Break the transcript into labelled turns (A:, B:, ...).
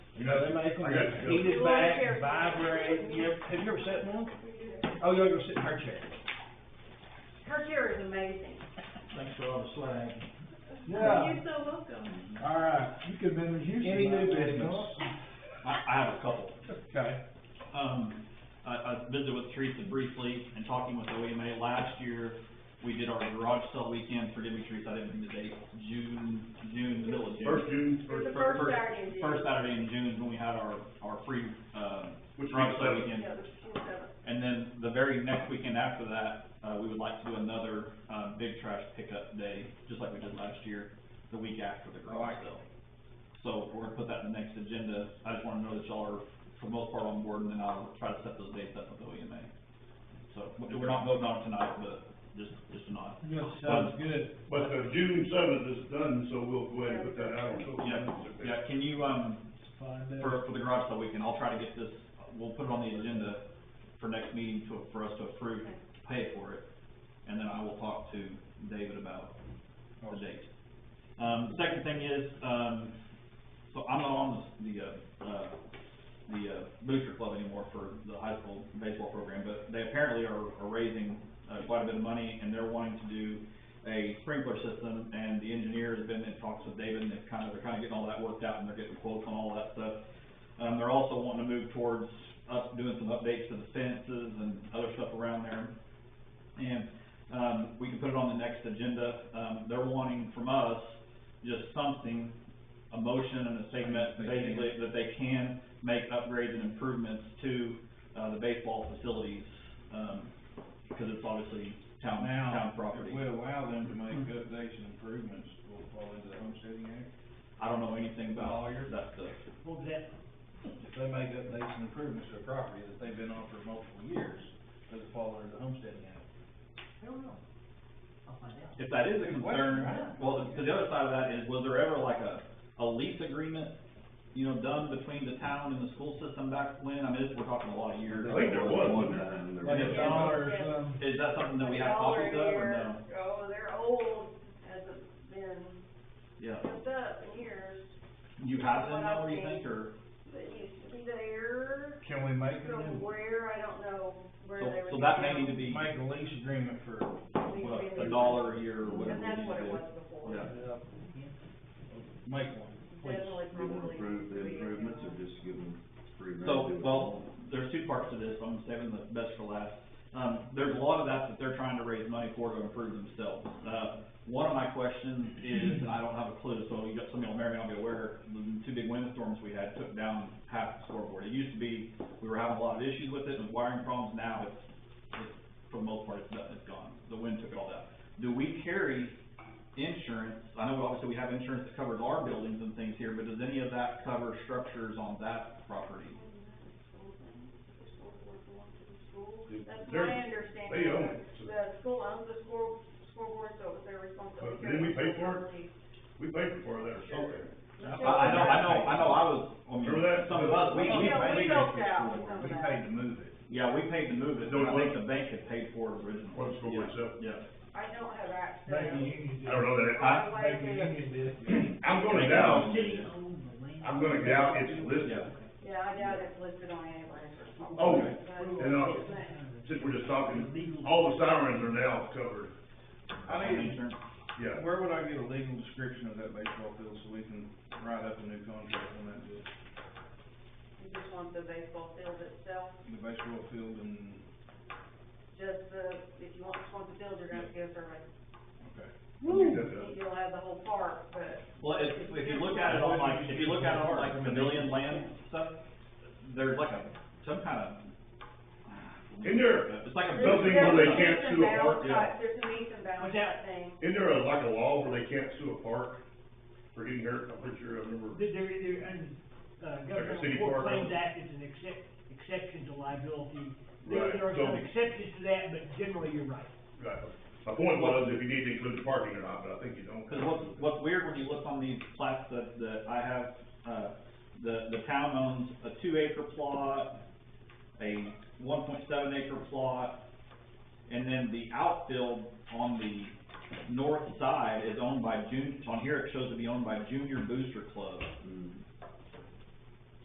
A: You know, they make them,
B: I got you.
A: heat it back, vibrate, you ever, have you ever sat in one? Oh, you ever sit in her chair?
C: Her chair is amazing.
A: Thanks for all the swag.
B: Yeah,
C: You're so welcome.
B: all right, you could have been in Houston.
A: Any
B: by
A: new
B: now,
A: business?
B: Doc.
D: I, I have a couple.
A: Okay.
D: Um, I, I visited with Teresa briefly and talking with OEMA last year. We did our garage sale weekend, forgive me, Teresa, I didn't bring the date, June, June, the middle of June.
E: First June,
C: It
E: first,
C: was the first Saturday in June.
D: First Saturday in June is when we had our, our free, uh,
E: Which
D: garage
E: means
D: sale
E: that-
D: weekend.
C: Yeah, the fourth of it.
D: And then the very next weekend after that, uh, we would like to do another, uh, big trash pickup day, just like we did last year, the week after the garage sale. So we're gonna put that in the next agenda. I just wanna know that y'all are, for the most part, on board, and then I'll try to set those dates up with OEMA. So, we- we're not voting on it tonight, but just, just a nod. Um,
B: Yes,
A: uh,
B: sounds good.
E: but the June seventh is done, so we'll go ahead and put that out on social
D: Yeah,
E: media.
D: yeah, can you, um,
B: Find out.
D: for, for the garage sale weekend, I'll try to get this, we'll put it on the agenda for next meeting to, for us to approve, pay for it, and then I will talk to David about the date. Um, the second thing is, um, so I'm not on the, the, uh, uh, the, uh, booster club anymore for the high school baseball program, but they apparently are, are raising, uh, quite a bit of money, and they're wanting to do a sprinkler system, and the engineer has been in talks with David, and they've kind of, they're kind of getting all that worked out, and they're getting quotes on all that stuff. Um, they're also wanting to move towards up, doing some updates to the fences and other stuff around there. And, um, we can put it on the next agenda, um, they're wanting from us just something, a motion and a statement,
A: They can.
D: basically, that they can make upgrades and improvements to, uh, the baseball facilities, um, because it's obviously town, town
A: Now,
D: property.
A: if we allow them to make updates and improvements, will it fall into the homesteading act?
D: I don't know anything about
A: Lawyer.
D: that stuff.
A: If they make updates and improvements to a property that they've been on for multiple years, does it fall under the homesteading act?
D: If that is a
A: Good
D: concern,
A: question, right?
D: well, the, the other side of that is, was there ever like a, a lease agreement, you know, done between the town and the school system back when? I mean, this, we're talking a lot of years.
E: I think there was one time. there
D: Is
B: Like a
E: was.
B: dollar or something.
D: that something that we have copies of or
C: Dollar a
D: no?
C: year. Oh, they're old, hasn't been
D: Yeah.
C: kept up in years.
D: You have
C: What
D: them now,
C: I've
D: what do you
C: seen.
D: think, or?
C: It used to be there,
A: Can we make
C: so where, I don't know where
D: So,
C: they were.
D: so that may need to be,
A: Make a lease agreement for,
D: what, a dollar a year or whatever.
C: And that's
D: we
C: what it
D: do.
C: was before.
D: Yeah.
A: make one, please.
C: Definitely
F: You
C: probably.
F: wanna approve the
C: be-
F: improvements or just give them free rein?
D: So,
F: do it?
D: well, there's two parts to this, I'm saving the best for last. Um, there's a lot of that that they're trying to raise money for to improve themselves. Uh, one of my questions is, and I don't have a clue, so you got somebody on Mary, I'll be aware, the two big windstorms we had took down half the scoreboard. It used to be, we were having a lot of issues with it and wiring problems, now it's, it's, for the most part, it's done, it's gone. The wind took it all down. Do we carry insurance? I know obviously we have insurance that covers our buildings and things here, but does any of that cover structures on that property?
C: That's
E: They're-
C: my understanding.
E: they own it, so-
C: The school owns the score, scoreboard, so it's their responsibility.
E: But didn't we pay for We paid for that, so,
A: I-
D: I, I know, I know, I know, I was, I mean,
E: Remember that?
D: some of us, we, we
C: Yeah, we
D: paid.
C: helped out with some
A: We
C: of that.
A: paid to move it.
D: Yeah, we paid to move it,
E: Don't
D: but I think
E: worry.
D: the bank had paid for it originally.
E: Well, it's for
D: Yeah,
E: myself.
D: Yeah,
C: I don't have access.
B: Maybe the union did.
E: I don't know that,
C: I-
B: Maybe the union did.
E: I'm gonna doubt, I'm gonna doubt it's listed,
D: yeah,
C: Yeah, I doubt it's listed on ambulance or something.
E: Oh,
C: But-
E: and, uh, since we're just talking, all the sirens are now covered,
A: I
D: on
A: need,
D: insurance.
E: yeah.
A: where would I get a legal description of that baseball field so we can write up a new contract on that, deal?
C: You just want the baseball field itself,
A: the baseball field and,
C: just the, if you want, just want the field, you're gonna have to give survey.
A: okay.
E: That's
C: You'll have the whole park, but
D: Well, if, if you look at it on like, if you look at it on like pavilion land stuff, there's like a, some kind of.
E: In there,
D: It's like a.
E: There's something where they can't
C: There's
E: sue
C: a
E: a park,
C: meets and bounds
D: yeah.
C: type- There's a meets and bounds type thing.
E: Isn't there a, like a law where they can't sue a park for getting hurt? I'm pretty sure I remember.
G: There, there, there, and, uh,
E: city
G: Government Court
E: park,
G: Claims
E: huh?
G: Act is an excep- exception to liability.
E: Right,
G: There, there are
E: so-
G: some exceptions to that, but generally you're right.
E: Right. My point was if you need to include parking or not, but I think you don't.
D: Cause what's, what's weird when you look on these plats that, that I have, uh, the, the town owns a two acre plot, a one point seven acre plot, and then the outfield on the north side is owned by Jun, on here it shows to be owned by Junior Booster Club.
F: Mm.